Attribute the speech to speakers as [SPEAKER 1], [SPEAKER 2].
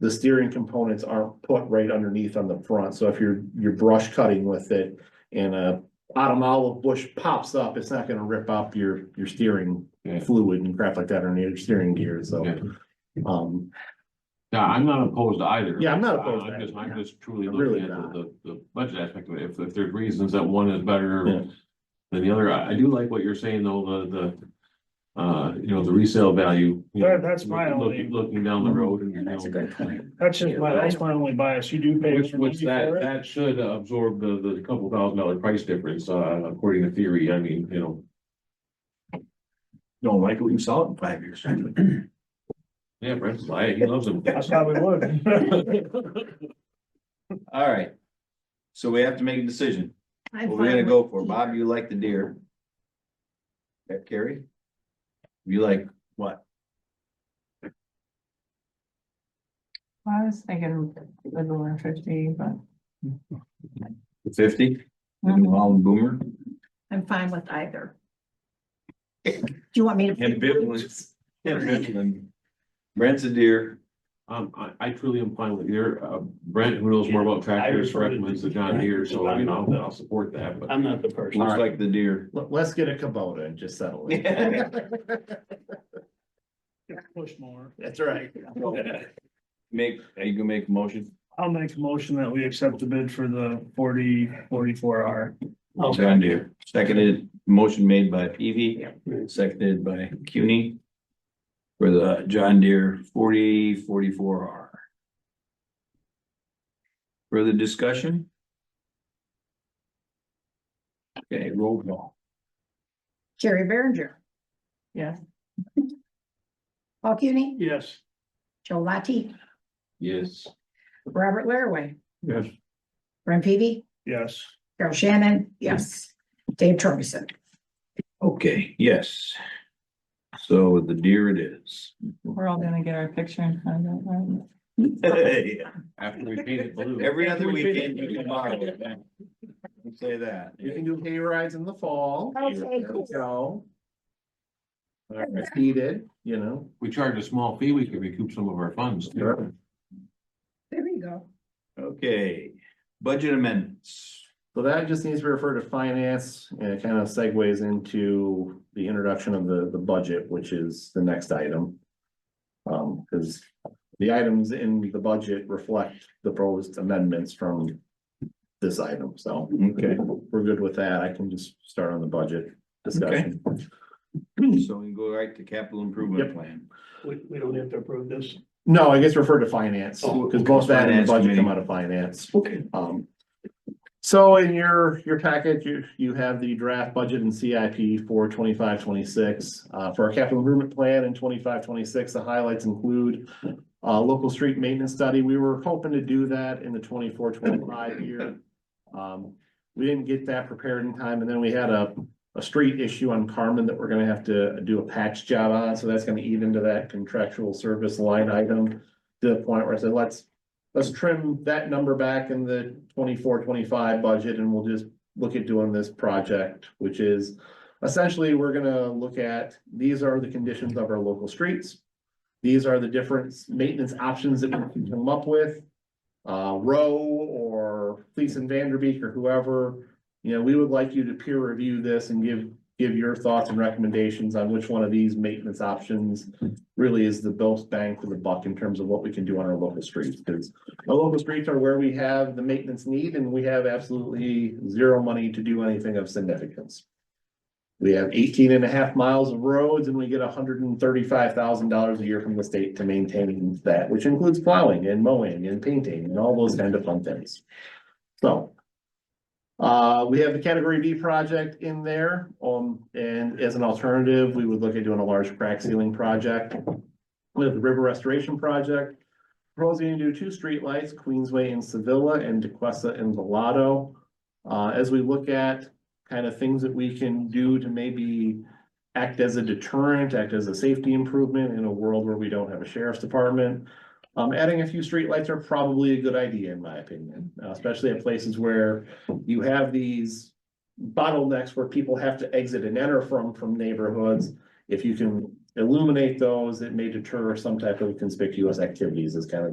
[SPEAKER 1] the steering components aren't put right underneath on the front, so if you're, you're brush cutting with it and a bottom olive bush pops up, it's not gonna rip up your, your steering
[SPEAKER 2] Yeah.
[SPEAKER 1] fluid and crap like that or your steering gear, so.
[SPEAKER 2] Yeah.
[SPEAKER 1] Um,
[SPEAKER 2] Yeah, I'm not opposed to either. Uh,
[SPEAKER 1] Yeah, I'm not opposed to
[SPEAKER 2] I'm just,
[SPEAKER 1] either,
[SPEAKER 2] I'm just truly
[SPEAKER 1] I'm really
[SPEAKER 2] looking at
[SPEAKER 1] not.
[SPEAKER 2] the, the, the budget aspect of it. If, if there's reasons that one is better
[SPEAKER 1] Yeah.
[SPEAKER 2] than the other, I, I do like what you're saying though, the, the, uh, you know, the resale value. you know,
[SPEAKER 3] That- that's my
[SPEAKER 2] look-
[SPEAKER 3] only-
[SPEAKER 2] Looking down
[SPEAKER 1] Mm-hmm.
[SPEAKER 2] the road and. you know,
[SPEAKER 4] point.
[SPEAKER 3] That's just my, that's my only bias. You do pay.
[SPEAKER 2] Which, which
[SPEAKER 3] money
[SPEAKER 2] that,
[SPEAKER 3] for it.
[SPEAKER 2] that should absorb the, the couple thousand dollar price difference, uh, according to theory. I mean, you know,
[SPEAKER 4] Don't like it, we saw it in five years.
[SPEAKER 2] yeah, Brent's, I, he loves them.
[SPEAKER 3] I probably would.
[SPEAKER 4] All right. So we have to make a decision.
[SPEAKER 5] I'm
[SPEAKER 4] What we're
[SPEAKER 5] fine
[SPEAKER 4] gonna
[SPEAKER 5] with
[SPEAKER 4] go for,
[SPEAKER 5] either.
[SPEAKER 4] Bob, you like the deer? That Carrie? You like what?
[SPEAKER 6] I was thinking the one fifty, but
[SPEAKER 4] The fifty? The
[SPEAKER 5] Mm-hmm.
[SPEAKER 4] New Holland Boomer?
[SPEAKER 5] I'm fine with either. Do you want me to?
[SPEAKER 4] Ambivalence. Brent's a deer.
[SPEAKER 2] Um, I, I truly am fine with your, uh, Brent, who knows more about tractors,
[SPEAKER 7] refer to-
[SPEAKER 2] recommends the John Deere, so you know, I'll support that, but.
[SPEAKER 7] I'm not the person.
[SPEAKER 4] Looks like the deer.
[SPEAKER 1] let, us get a Kubota and just settle it.
[SPEAKER 3] Push more.
[SPEAKER 1] That's right.
[SPEAKER 4] Make, are you gonna make a motion?
[SPEAKER 3] I'll make a motion that we accept the bid for the forty, forty-four R.
[SPEAKER 4] John Deere. Seconded, motion made by Peavy, seconded by CUNY. For the John Deere forty forty-four R. Further discussion? Okay, roll call.
[SPEAKER 5] Jerry Berenger,
[SPEAKER 6] yeah.
[SPEAKER 5] Paul Cuny,
[SPEAKER 3] Yes.
[SPEAKER 5] Joe Latte,
[SPEAKER 2] Yes.
[SPEAKER 5] Robert Laraway.
[SPEAKER 2] Yes.
[SPEAKER 5] Brent Peavy,
[SPEAKER 3] Yes.
[SPEAKER 5] Carol Shannon, yes. Dave Torgerson.
[SPEAKER 4] Okay, yes. So the deer it is.
[SPEAKER 6] We're all gonna get our picture in front of it, right?
[SPEAKER 2] After we paint it blue.
[SPEAKER 4] Every other weekend you can borrow it. I'll Say that.
[SPEAKER 1] You can do hay rides in the fall.
[SPEAKER 5] Okay, cool.
[SPEAKER 1] So. It's heated, you know.
[SPEAKER 2] We charge a small fee, we can recoup some of our funds. too.
[SPEAKER 1] Sure.
[SPEAKER 5] There you go.
[SPEAKER 4] Okay, budget amendments.
[SPEAKER 1] So that just needs to refer to finance and it kind of segues into the introduction of the, the budget, which is the next item. Um, because the items in the budget reflect the proposed amendments from this item, so.
[SPEAKER 4] Okay.
[SPEAKER 1] We're good with that. I can just start on the budget discussion.
[SPEAKER 4] So we can go right to capital improvement
[SPEAKER 1] Yep.
[SPEAKER 4] plan.
[SPEAKER 7] We, we don't have to approve this.
[SPEAKER 1] No, I guess refer to finance,
[SPEAKER 4] Oh,
[SPEAKER 1] because both that and the
[SPEAKER 4] Finance
[SPEAKER 1] budget come
[SPEAKER 4] committee.
[SPEAKER 1] out of finance.
[SPEAKER 4] Okay.
[SPEAKER 1] Um. So in your, your packet, you, you have the draft budget and CIP for twenty-five, twenty-six. Uh, for our capital improvement plan in twenty-five, twenty-six, the highlights include. Uh, local street maintenance study. We were hoping to do that in the 24-25 year. Um, we didn't get that prepared in time, and then we had a, a street issue on Carmen that we're gonna have to do a patch job on, so that's gonna eat into that contractual service line item. To the point where I said, let's let's trim that number back in the 24-25 budget and we'll just look at doing this project, which is essentially, we're gonna look at, these are the conditions of our local streets. These are the different maintenance options that we can come up with. Uh, Rowe or Fleece and Vanderbeek or whoever, you know, we would like you to peer review this and give, give your thoughts and recommendations on which one of these maintenance options really is the best bang for the buck in terms of what we can do on our local streets, because our local streets are where we have the maintenance need and we have absolutely zero money to do anything of significance. We have 18 and a half miles of roads and we get hundred and thirty-five thousand dollars a year from the state to maintain that, which includes plowing and mowing and painting and all those kind of fun things. So. Uh, we have the category B project in there, um, and as an alternative, we would look at doing a large crack sealing project. We have the river restoration project, proposing to do two streetlights, Queensway and Sevilla and DeQuesta and Villado. Uh, as we look at kind of things that we can do to maybe act as a deterrent, act as a safety improvement in a world where we don't have a sheriff's department. Um, adding a few streetlights are probably a good idea, in my opinion, uh, especially at places where you have these bottlenecks where people have to exit and enter from, from neighborhoods. If you can illuminate those, it may deter some type of conspicuous activities is kind of